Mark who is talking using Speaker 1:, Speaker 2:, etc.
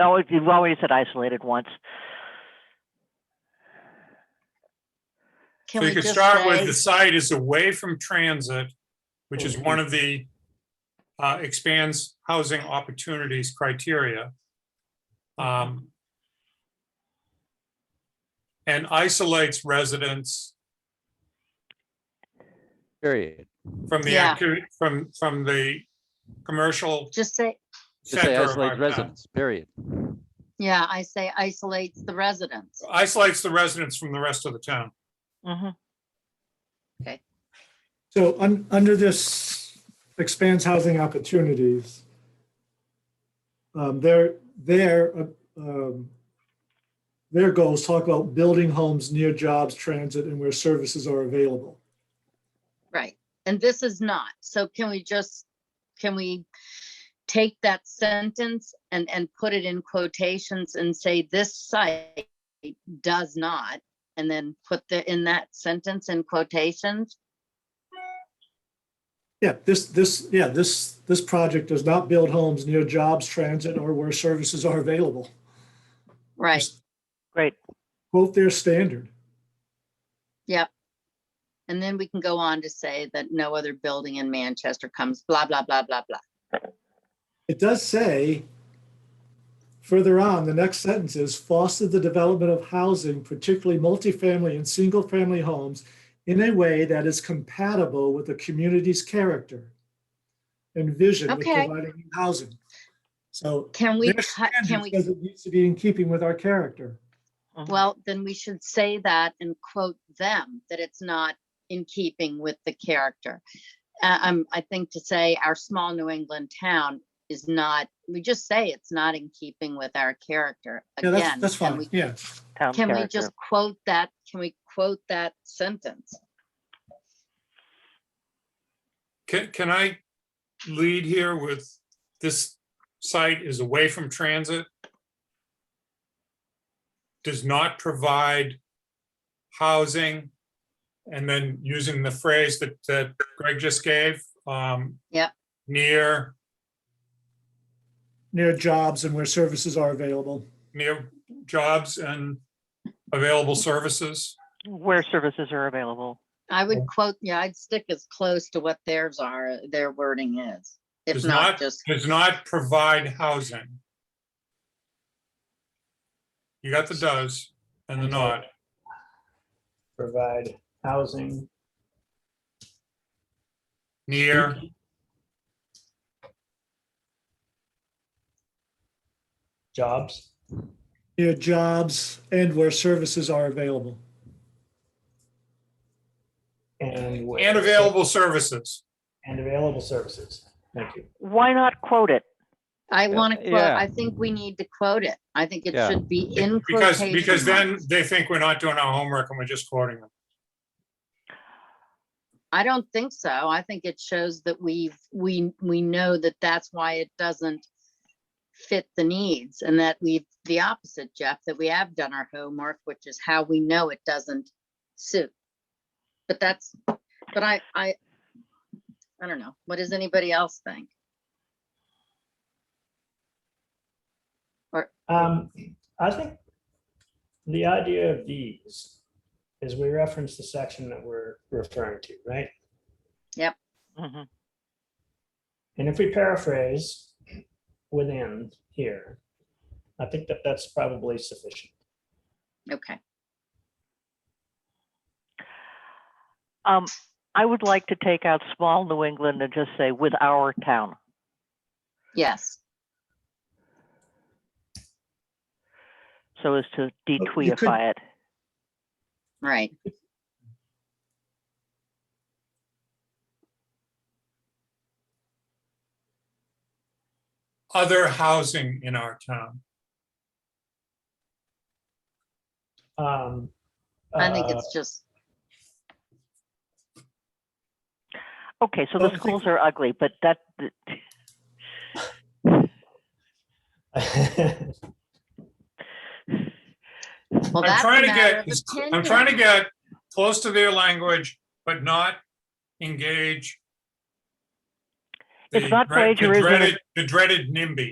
Speaker 1: Oh, you've already said isolated once.
Speaker 2: Can
Speaker 3: So
Speaker 2: we
Speaker 3: you could
Speaker 2: just
Speaker 3: start with
Speaker 2: say-
Speaker 3: the site is away from transit, which is one of the uh, expands housing opportunities criteria. Um, And isolates residents
Speaker 4: Period.
Speaker 3: from the,
Speaker 2: Yeah.
Speaker 3: activity from, from the commercial
Speaker 2: Just say,
Speaker 4: Just say
Speaker 3: center of
Speaker 4: isolate
Speaker 3: our town.
Speaker 4: residents, period.
Speaker 2: yeah, I say isolates the residents.
Speaker 3: Isolates the residents from the rest of the town.
Speaker 1: hmm
Speaker 5: So un- under this expands housing opportunities, um, their, their, uh, um, their goals talk about building homes near jobs, transit, and where services are available.
Speaker 2: Right. And this is not. So can we just, can we take that sentence and, and put it in quotations and say this site does not? And then put the, in that sentence in quotations?
Speaker 5: Yeah, this, this, yeah, this, this project does not build homes near jobs, transit, or where services are available.
Speaker 2: Right.
Speaker 1: Great.
Speaker 5: Quote their standard.
Speaker 2: And then we can go on to say that no other building in Manchester comes blah, blah, blah, blah, blah.
Speaker 5: It does say, further on, the next sentence is foster the development of housing, particularly multifamily and single-family homes in a way that is compatible with the community's character and vision with
Speaker 2: Okay.
Speaker 5: providing housing. So
Speaker 2: Can we,
Speaker 5: their
Speaker 2: cut? can
Speaker 5: standard
Speaker 2: we?
Speaker 5: says it needs to be in keeping with our character.
Speaker 1: Mhm.
Speaker 2: Well, then we should say that and quote them, that it's not in keeping with the character. Uh, Um, I think to say our small New England town is not, we just say it's not in keeping with our character.
Speaker 5: Yeah,
Speaker 2: Again,
Speaker 5: that's, that's
Speaker 2: can
Speaker 5: fine,
Speaker 2: we-
Speaker 5: yeah.
Speaker 1: Town
Speaker 2: Can we
Speaker 1: character.
Speaker 2: just quote that, can we quote that sentence?
Speaker 3: Can, can I lead here with this site is away from transit? Does not provide housing? And then using the phrase that, that Greg just gave, um.
Speaker 2: Yep.
Speaker 3: Near,
Speaker 5: Near jobs and where services are available.
Speaker 3: near jobs and available services.
Speaker 1: Where services are available.
Speaker 2: I would quote, yeah, I'd stick as close to what theirs are, their wording is. If
Speaker 3: Does
Speaker 2: not,
Speaker 3: not-
Speaker 2: just,
Speaker 3: Does not provide housing. You got the does and the not.
Speaker 6: provide housing.
Speaker 3: Near,
Speaker 6: Jobs.
Speaker 5: Near jobs and where services are available.
Speaker 6: And. where-
Speaker 3: and available services.
Speaker 6: And available services. Thank you.
Speaker 1: Why not quote it?
Speaker 2: I
Speaker 4: Yeah,
Speaker 2: want to quote,
Speaker 4: yeah.
Speaker 2: I think we need to quote it. I think it
Speaker 4: Yeah.
Speaker 2: should be in
Speaker 3: Because,
Speaker 2: quotation
Speaker 3: because then
Speaker 2: marks.
Speaker 3: they think we're not doing our homework and we're just quoting them.
Speaker 2: I don't think so. I think it shows that we've, we, we know that that's why it doesn't fit the needs and that we've, the opposite, Jeff, that we have done our homework, which is how we know it doesn't suit. But that's, but I, I, I don't know. What does anybody else think?
Speaker 6: Um, I think the idea of these is we reference the section that we're referring to, right?
Speaker 1: Mhm.
Speaker 6: And if we paraphrase within here, I think that that's probably sufficient.
Speaker 2: Okay,
Speaker 1: Um, I would like to take out small New England and just say with our town.
Speaker 2: yes,
Speaker 1: So as to
Speaker 5: Oh, you could-
Speaker 1: detweetify it.
Speaker 2: right.
Speaker 3: Other housing in our town.
Speaker 6: Um,
Speaker 2: I think
Speaker 6: uh,
Speaker 2: it's just,
Speaker 1: Okay, so
Speaker 5: Oh, I
Speaker 1: the
Speaker 5: think-
Speaker 1: schools are ugly, but that, th-
Speaker 6: uh,
Speaker 2: well,
Speaker 3: I'm
Speaker 2: that's a
Speaker 3: trying to
Speaker 2: matter
Speaker 3: get,
Speaker 2: of opinion.
Speaker 3: I'm trying to get close to their language, but not engage.
Speaker 1: It's
Speaker 3: the
Speaker 1: not
Speaker 3: dread- the
Speaker 1: plagiarism, it's-
Speaker 3: dreaded- The dreaded NIMBY.